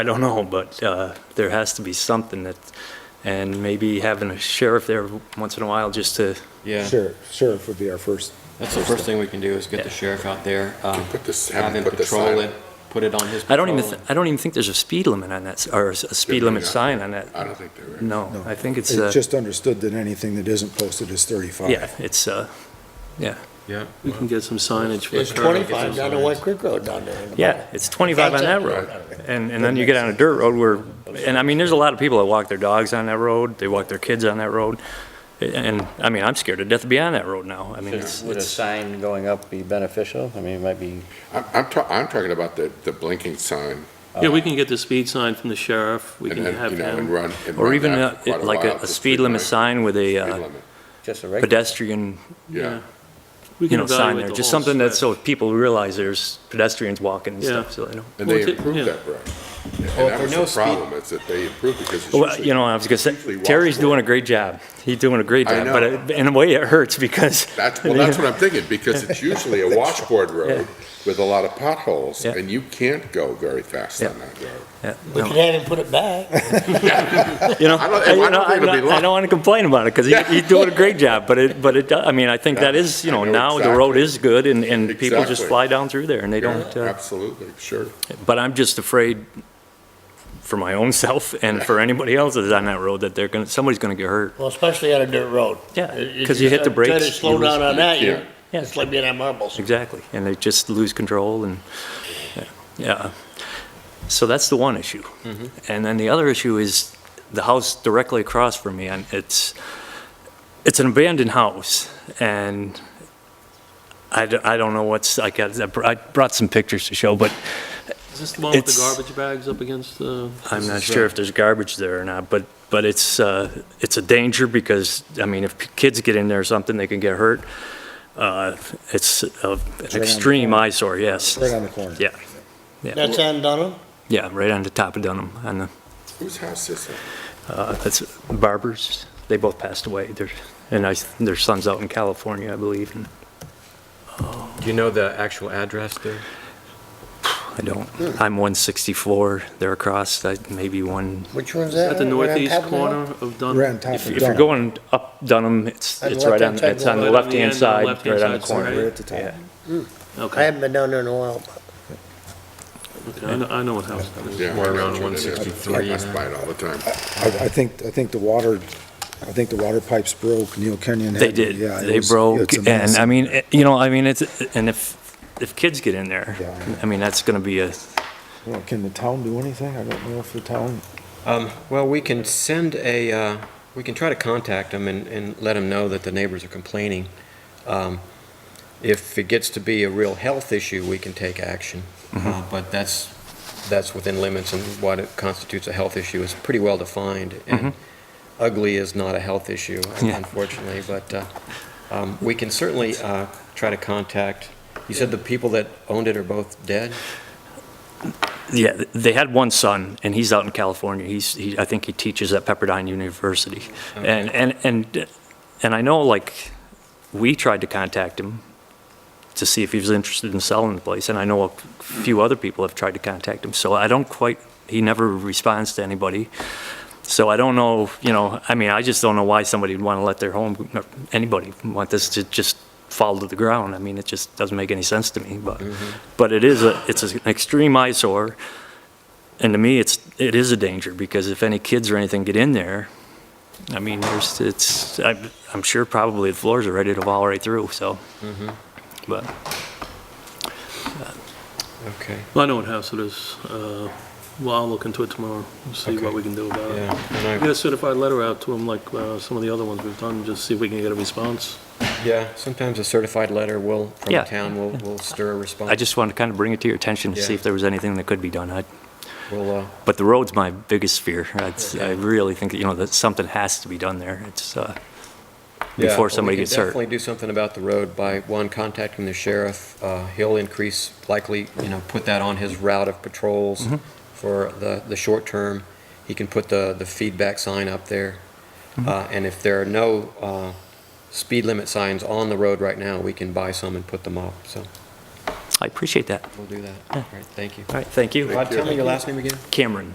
I don't know, but uh, there has to be something that, and maybe having a sheriff there once in a while just to, Yeah, Sure, sheriff would be our first. that's the first thing we can do is get the sheriff out there, um, Put this, have have him him put this patrol sign. it, put it on his. I don't even, patrol. th- Oh. I don't even think there's a speed limit on that, s- or a s- a speed Yeah, limit yeah. sign on that. I don't think they were. No, I think it's, uh, It's just understood that anything that isn't posted is thirty-five. yeah, it's, uh, yeah, Yeah. We can get some signage for Yeah, sure, I'll it. get Twenty-five some down to signs. White Creek Road down there. yeah, it's 25 on that road. And, and then you get on a dirt road where, and I mean, there's a lot of people that walk their dogs on that road, they walk their kids on that road. And, I mean, I'm scared to death to be on that road now. I mean, it's, Would a it's, sign going up be beneficial? I mean, it might be, I'm, I'm ta- I'm talking about the, the blinking sign Yeah, we can get the speed sign from the sheriff, we and, can and, have you know, and him. run. and or run even that uh, for quite it- like a, while, a the speed limit light, sign with a speed uh, limit. just a regular. pedestrian, Yeah, We you can know, sign evaluate there, the just whole something that stretch. so people realize there's pedestrians walking and Yeah. stuff, so they know. and Well, they if it- yeah. improved that road. Well, And if that there was are no the speed- problem, is that they improved because it's Oh, Well, usually. you know, I was gonna usually say, washed Terry's away. doing a great job. He's doing a great I job, but know. it- in a way it hurts because. That's, well, that's what I'm thinking, because it's usually a washboard road with a lot of potholes, Yeah. and you can't go very fast on that road. Yeah, We no. could have him put it back. You know, I don't- I- I you don't know, think I'm it'll not- be long. I don't wanna complain about it, cause he, he's doing a great job, but it, but it, do- I mean, I think that is, you I know, know now the road exactly. is good and, and people just Exactly. fly down through there and they Yeah, don't, uh, Absolutely, sure. but I'm just afraid for my own self and for anybody else that's on that road that they're gonna, somebody's gonna get hurt. Well, especially on a dirt road. Yeah, It- 'cause you hit the try to brakes, slow you lose- down on that, you, Yeah. it's like being on marbles. Exactly, and they just lose control and, yeah. So that's the one issue. Mm-hmm. And then the other issue is the house directly across from me, and it's, it's an abandoned house, and I, d- I don't know what's, I got, I br- I brought some pictures to show, but Is this the one with the it's- garbage bags up against the? I'm this not is, sure uh, if there's garbage there or not, but, but it's, uh, it's a danger because, I mean, if kids get in there or something, they can get hurt. Uh, It's a- an extreme eyesore, yes. Right on the corner. Yeah, yeah. That's on Dunham? Yeah, right on the top of Dunham, on the, Whose house is it? uh, that's Barbers. They both passed away. Their, and I, their son's out in California, I believe, and Do you know the actual address there? I don't, Hmm. I'm 164, they're across, I- maybe one, Which one's is that? At the Right on northeast top of the hill? corner of Dunn. Right on top if of if you're Dunham, going up Dunham, it's, On the it's right on, left-hand side it's on going the up. left-hand Right on the side, end, on the right on the left-hand side, corner. right at the top. Yeah. I Okay, haven't been down there in a while, but okay, I know, I know what house that is. Yeah, More I know around which one it is. 163, I pass by it all the time. I, I think, I think the water, I think the water pipes broke, Neil Kenyon had. They did, yeah, it they was- broke, it's a and mess. I mean, it- you know, I mean, it's, and if, if kids get in there, Yeah, I know. I mean, that's gonna be a, You know, Can the town do anything? I don't know if the town, Um, well, we can send a, uh, we can try to contact them and, and let them know that the neighbors are complaining. Um, if it gets to be a real health issue, we can take action. Uh, but that's, that's within limits and what it constitutes a health issue is pretty well defined. And ugly is not a health issue, Yeah. unfortunately, but, uh, um, we can certainly, uh, try to contact. You said the people that owned it are both dead? Yeah, th- they had one son, and he's out in California. He's, he, I think he teaches at Pepperdine University. And, and, and, and I know, like, we tried to contact him to see if he was interested in selling the place, and I know a few other people have tried to contact him, so I don't quite, he never responds to anybody. So I don't know, you know, I mean, I just don't know why somebody would want to let their home, anybody want this to just fall to the ground. I mean, it just doesn't make any sense to me, but, but it is, a it's an extreme eyesore. And to me, it's, it is a danger, because if any kids or anything get in there, I mean, there's, it's, I'm, I'm sure probably the floors are ready to fall right through, so. Mm-hmm. But, Okay, Well, I know what house it is, uh, well, I'll look into it tomorrow, and see what we can do about it. yeah. and I- Get a certified letter out to them like, uh, some of the other ones we've done, just see if we can get a response. Yeah, sometimes a certified letter will, from Yeah. the town will, will stir a response. I just wanted to kind of bring it to your attention to see Yeah. if there was anything that could be done. I- Will, uh, But the road's my biggest fear. I'd- I really think, that you know, that something has to be done there. It's, uh, yeah, before we somebody can gets hurt. Definitely do something about the road by, one, contacting the sheriff. Uh, he'll increase, likely, you know, put that on his route of patrols Mm-hmm. for the, the short term. He can put the, the feedback sign up there. Mm-hmm. Uh, and if there are no, uh, speed limit signs on the road right now, we can buy some and put them up, so I appreciate that. we'll do that. All right, thank you. All right, thank you. Rod, tell me your last name again? Cameron.